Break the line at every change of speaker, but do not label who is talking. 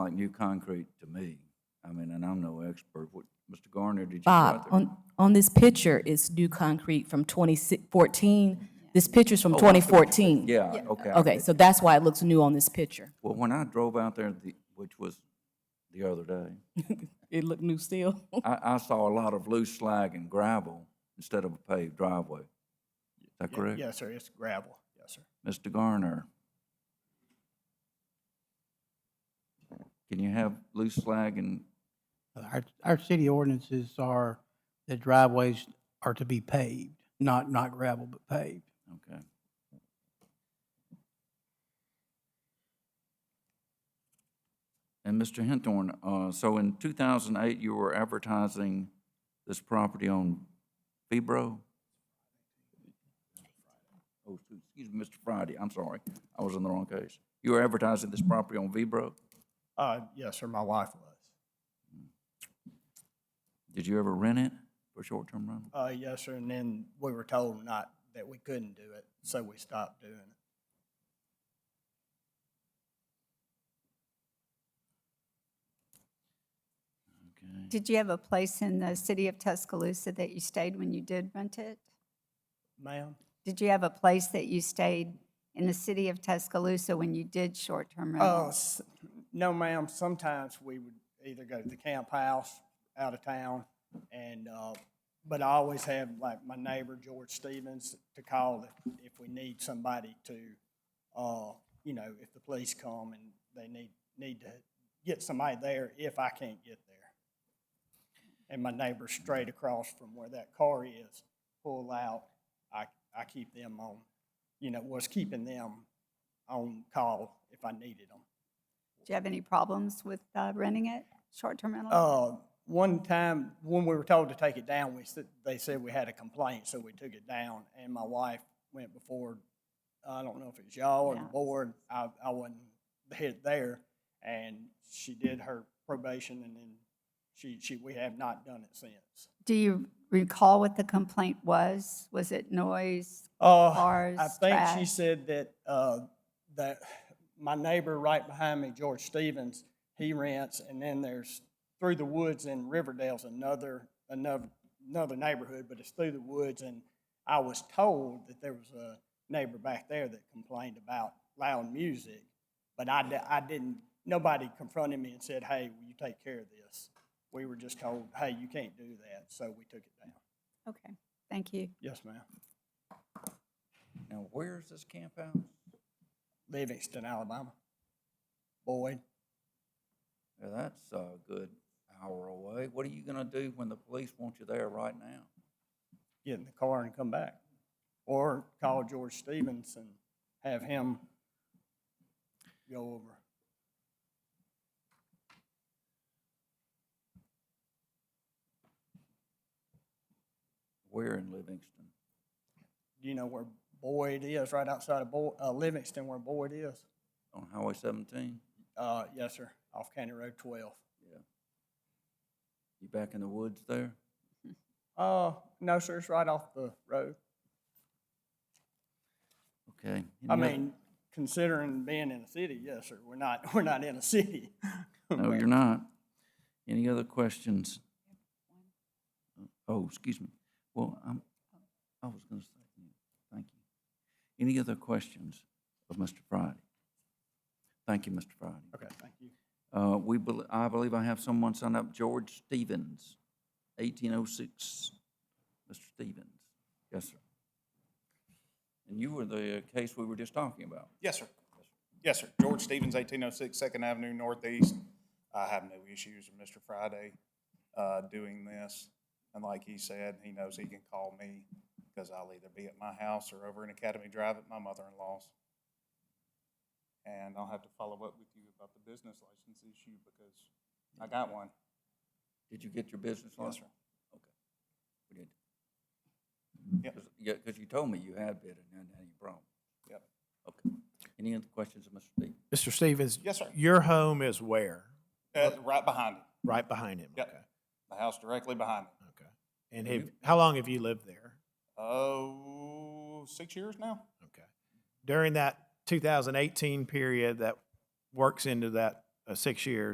like new concrete to me. I mean, and I'm no expert. What, Mr. Garner, did you? go out
Bob,
there?
Uh, on, on this picture is new concrete from 2014. This picture's from 2014.
Oh, Yeah, okay. I
Okay, so that's why it looks new on this picture.
Well, when I drove out there, the, which was the other day,
It looked new still.
I, I saw a lot of loose slag and gravel instead of a paved driveway. Is that correct?
Yes, sir, it's gravel, yes, sir.
Mr. Garner? Can you have loose slag and,
Our, our city ordinances are that driveways are to be paved, not, not gravel, but paved.
okay. And Mr. Henthorn, uh, so in two thousand eight, you were advertising this property on Febro? Oh, excuse me, Mr. Friday, I'm sorry, I was in the wrong case. You were advertising this property on Febro?
Uh, yes, sir, my wife was.
Did you ever rent it for short-term rental?
Uh, yes, sir, and then we were told not, that we couldn't do it, so we stopped doing it.
Did you have a place in the city of Tuscaloosa that you stayed when you did rent it?
Ma'am?
Did you have a place that you stayed in the city of Tuscaloosa when you did short-term
Oh, s-
rentals?
no, ma'am, sometimes we would either go to the camp house out of town and, uh, but I always have like my neighbor George Stevens to call if, if we need somebody to, uh, you know, if the police come and they need, need to get somebody there if I can't get there. And my neighbor's straight across from where that car is, pull out, I, I keep them on, you know, was keeping them on call if I needed them.
Did you have any problems with uh, renting it, short-term rental?
Uh, one time, when we were told to take it down, we said, they said we had a complaint, so we took it down, and my wife went before, I don't know if it was y'all or the
Yeah.
board, I, I wasn't there- there, and she did her probation, and then she, she, we have not done it since.
Do you recall what the complaint was? Was it noise?
Uh,
Cars,
I think she
trash?
said that, uh, that my neighbor right behind me, George Stevens, he rents, and then there's, through the woods in Riverdale's another, another, another neighborhood, but it's through the woods, and I was told that there was a neighbor back there that complained about loud music, but I, di- I didn't, nobody confronted me and said, hey, will you take care of this? We were just told, hey, you can't do that, so we took it down.
Okay, thank you.
Yes, ma'am.
Now, where is this camp house?
Livingston, Alabama. Boyd.
Now, that's a good hour away. What are you gonna do when the police want you there right now?
get in the car and come back. Or call
Mm-hmm.
George Stevens and have him go over.
Where in Livingston?
Do you know where Boyd is, right outside of Boyd, uh, Livingston where Boyd is?
On Highway seventeen?
Uh, yes, sir, off County Road twelve.
You back in the woods there?
Uh, no, sir, it's right off the road.
Okay.
I
Any other-
mean, considering being in a city, yes, sir, we're not, we're not in a city.
No, you're not. Any other questions? Oh, excuse me. Well, I'm, I was gonna say, thank you. Any other questions of Mr. Friday? Thank you, Mr. Friday.
Okay, thank you.
Uh, we, bel- I believe I have someone sign up, George Stevens, eighteen oh six, Mr. Stevens. Yes, sir. And you were the uh, case we were just talking about.
Yes, sir. Yes, sir. George Stevens, eighteen oh six Second Avenue Northeast. I have no issues with Mr. Friday, uh, doing this. And like he said, he knows he can call me because I'll either be at my house or over in Academy Drive at my mother-in-law's. And I'll have to follow up with you about the business license issue because I got one.
Did you get your business
Yes,
license?
sir.
We did.
Yep.
Cause, yeah, 'cause you told me you had bid and hadn't had any problem.
Yep.
Okay. Any other questions of Mr. Stevens?
Mr. Stevens?
Yes, sir.
Your home is where?
Uh, right behind him.
Right behind him?
Yep. Mm-hmm.
Okay,
The house directly behind him.
Okay. And have, how long have you lived there?
Oh, six years now?
Okay. During that 2018 period that works into that uh, six years,